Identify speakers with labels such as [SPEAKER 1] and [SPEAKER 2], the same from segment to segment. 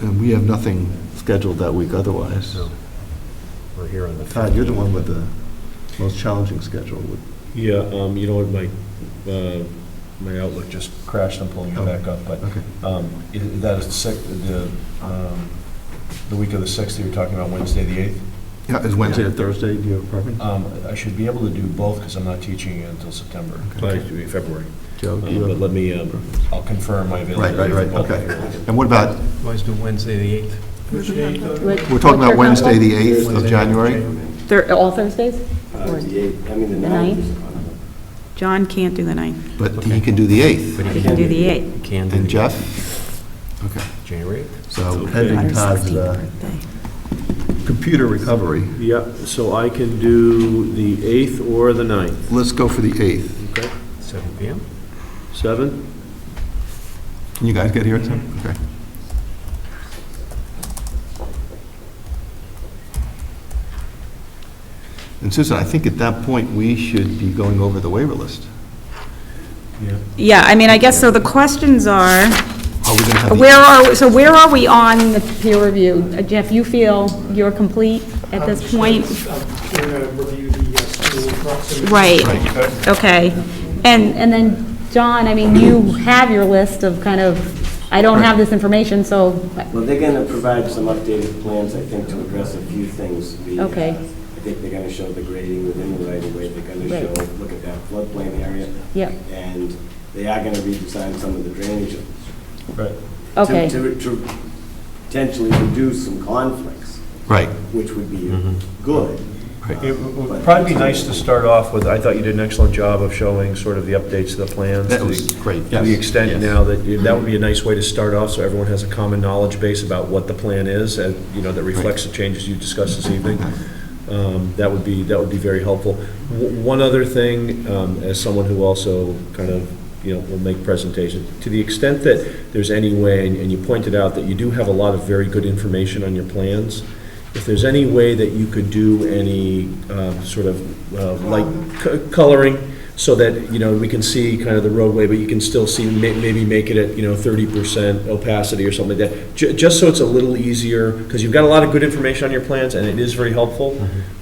[SPEAKER 1] And we have nothing scheduled that week otherwise.
[SPEAKER 2] So, We're here on the
[SPEAKER 1] Todd, you're the one
[SPEAKER 2] 15th.
[SPEAKER 1] with the most challenging schedule. Would-
[SPEAKER 3] Yeah, um, you know what, my, uh, my Outlook just crashed, I'm pulling it back up, but,
[SPEAKER 1] Okay.
[SPEAKER 3] um, i- that is the sec, the, um, the week of the sixth, you were talking about Wednesday, the eighth.
[SPEAKER 1] Yeah, is Wednesday or Thursday, do you have a preference?
[SPEAKER 3] Um, I should be able to do both, because I'm not teaching until September,
[SPEAKER 1] Okay.
[SPEAKER 3] Actually, February.
[SPEAKER 1] Joe, do
[SPEAKER 3] Um,
[SPEAKER 1] you
[SPEAKER 3] But
[SPEAKER 1] have-
[SPEAKER 3] let me, um, I'll confirm my
[SPEAKER 1] Right,
[SPEAKER 3] availability.
[SPEAKER 1] right, right,
[SPEAKER 3] for both.
[SPEAKER 1] okay. And what about,
[SPEAKER 2] Always do Wednesday, the 8th. Which day?
[SPEAKER 1] we're talking about Wednesday, the 8th of January?
[SPEAKER 4] Thir- uh, All Thursdays? Or-
[SPEAKER 5] Uh, The eighth, I mean, the
[SPEAKER 4] The
[SPEAKER 5] ninth.
[SPEAKER 4] John can't do the ninth.
[SPEAKER 1] But he can do the 8th.
[SPEAKER 4] I can do the eighth.
[SPEAKER 2] Can do.
[SPEAKER 1] And
[SPEAKER 2] the-
[SPEAKER 1] Jeff? Okay,
[SPEAKER 2] January 8th.
[SPEAKER 1] so pending Todd's uh, computer recovery,
[SPEAKER 6] Yeah, so I can do the 8th or the 9th,
[SPEAKER 1] let's go for the 8th.
[SPEAKER 6] okay?
[SPEAKER 2] Seven PM?
[SPEAKER 6] 7?
[SPEAKER 1] Can you guys get here at 10? Okay. And Susan, I think at that point, we should be going over the waiver list.
[SPEAKER 4] Yeah, I mean, I guess, so the questions are,
[SPEAKER 1] Are we going to have the...
[SPEAKER 4] where are, so where are we on the peer review? Uh, Jeff, you feel you're complete at this point?
[SPEAKER 7] Um,
[SPEAKER 8] I'm going to review the uh, school proximity.
[SPEAKER 4] Right, okay. And, and then, John, I mean, you have your list of kind of, I don't have this information, so,
[SPEAKER 5] Well, they're going to provide some updated plans, I think, to address a few things. The, uh,
[SPEAKER 4] Okay.
[SPEAKER 5] I think they're going to show the grading within the right of way, they're going to
[SPEAKER 4] Right.
[SPEAKER 5] show, look at that floodplain area,
[SPEAKER 4] yeah,
[SPEAKER 5] and they are going to redesign some of the drainage to-
[SPEAKER 3] Right.
[SPEAKER 4] okay.
[SPEAKER 5] to to potentially reduce some conflicts,
[SPEAKER 1] Right,
[SPEAKER 5] which would be good. Uh,
[SPEAKER 3] It would probably be nice to start off with, I thought you did an excellent job of showing sort of the updates to the plans.
[SPEAKER 1] That
[SPEAKER 3] to the-
[SPEAKER 1] was great,
[SPEAKER 3] To the
[SPEAKER 1] yes,
[SPEAKER 3] extent
[SPEAKER 1] yes.
[SPEAKER 3] now that, you- that would be a nice way to start off, so everyone has a common knowledge base about what the plan is, and, you know, that reflects the changes you discussed this evening. Um, That would be, that would be very helpful. W- One other thing, um, as someone who also kind of, you know, will make presentations, to the extent that there's any way, and- and you pointed out that you do have a lot of very good information on your plans, if there's any way that you could do any uh, sort of uh, light co- coloring, so that, you know, we can see kind of the roadway, but you can still see, ma- maybe make it at, you know, 30% opacity or something like that, Ju- just so it's a little easier, because you've got a lot of good information on your plans, and it is very helpful,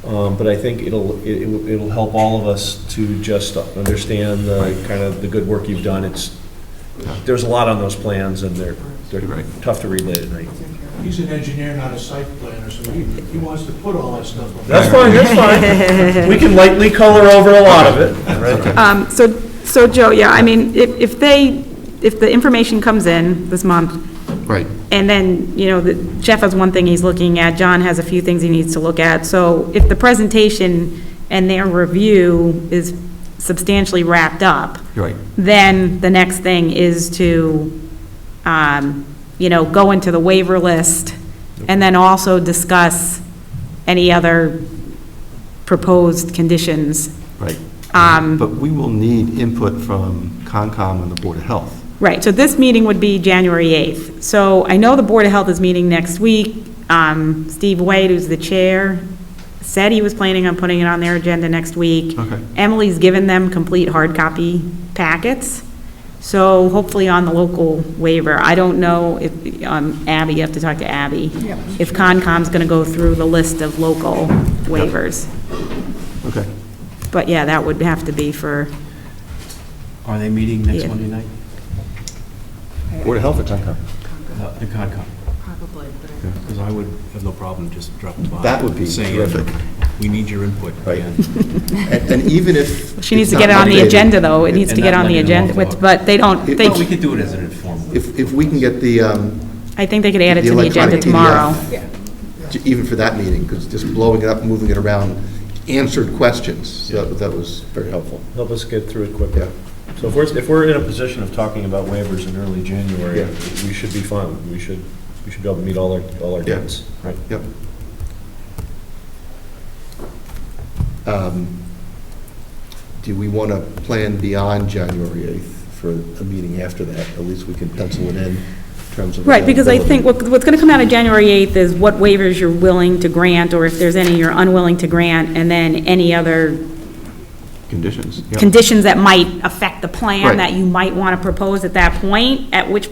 [SPEAKER 3] Um, but I think it'll, it- it'll it'll help all of us to just understand the, kind of the good work you've done. It's, there's a lot on those plans, and they're, they're
[SPEAKER 1] Right.
[SPEAKER 3] tough to relay at night.
[SPEAKER 7] He's an engineer, not a site planner, so he, he wants to put all that stuff on.
[SPEAKER 3] That's fine, that's fine. We can lightly color over a lot of it.
[SPEAKER 4] Um, So, so Joe, yeah, I mean, if, if they, if the information comes in this month,
[SPEAKER 1] right.
[SPEAKER 4] and then, you know, the- Jeff has one thing he's looking at, John has a few things he needs to look at, so if the presentation and their review is substantially wrapped up,
[SPEAKER 1] Right.
[SPEAKER 4] then the next thing is to, um, you know, go into the waiver list, and then also discuss any other proposed conditions.
[SPEAKER 1] Right.
[SPEAKER 4] Um,
[SPEAKER 1] But we will need input from Concom and the Board of Health.
[SPEAKER 4] Right, so this meeting would be January 8th. So I know the Board of Health is meeting next week. Um, Steve Wade, who's the chair, said he was planning on putting it on their agenda next week.
[SPEAKER 1] Okay.
[SPEAKER 4] Emily's given them complete hard copy packets, so hopefully on the local waiver. I don't know if, um, Abby, you have to talk to Abby. If Concom's going to go through the list of local waivers.
[SPEAKER 1] Okay.
[SPEAKER 4] But yeah, that would have to be for,
[SPEAKER 2] Are they meeting next
[SPEAKER 4] Yeah.
[SPEAKER 2] Monday night?
[SPEAKER 1] Board of Health or Concom?
[SPEAKER 2] Uh, The Concom?
[SPEAKER 9] Probably, but I
[SPEAKER 2] Because I would have no problem just dropping by.
[SPEAKER 1] That would be
[SPEAKER 2] saying,
[SPEAKER 1] terrific.
[SPEAKER 2] We need your input.
[SPEAKER 1] Right.
[SPEAKER 2] and-
[SPEAKER 1] And and even if...
[SPEAKER 4] she needs
[SPEAKER 1] it's
[SPEAKER 4] to get it
[SPEAKER 1] not
[SPEAKER 4] on the
[SPEAKER 1] updated,
[SPEAKER 4] agenda, though. It needs to
[SPEAKER 2] And
[SPEAKER 4] get
[SPEAKER 2] not
[SPEAKER 4] on the
[SPEAKER 2] letting them
[SPEAKER 4] agenda,
[SPEAKER 2] off the hook.
[SPEAKER 4] with- but they don't, they...
[SPEAKER 2] Well, we could do it as an informal.
[SPEAKER 1] If, if we can get the, um,
[SPEAKER 4] I think they could add it to the
[SPEAKER 1] electronic
[SPEAKER 4] agenda
[SPEAKER 1] PDF,
[SPEAKER 4] tomorrow.
[SPEAKER 1] j- Even for that meeting, because just blowing it up, moving it around, answered questions. So that- that was very helpful.
[SPEAKER 3] Help us get through it
[SPEAKER 1] Yeah.
[SPEAKER 3] quickly. So if we're, if we're in a position of talking about waivers in early January,
[SPEAKER 1] Yeah.
[SPEAKER 3] we should be fine. We should, we should be able to meet all our, all our
[SPEAKER 1] Yeah.
[SPEAKER 3] dates. Right.
[SPEAKER 1] Yep. Um, Do we want to plan beyond January 8th for a meeting after that? At least we can pencil it in in terms of.
[SPEAKER 4] Right, because I think
[SPEAKER 1] availability.
[SPEAKER 4] what- what's going to come out of January 8th is what waivers you're willing to grant, or if there's any you're unwilling to grant, and then any other
[SPEAKER 1] Conditions. yeah.
[SPEAKER 4] conditions that might affect the
[SPEAKER 1] Right.
[SPEAKER 4] plan that you might want to propose at that point, at which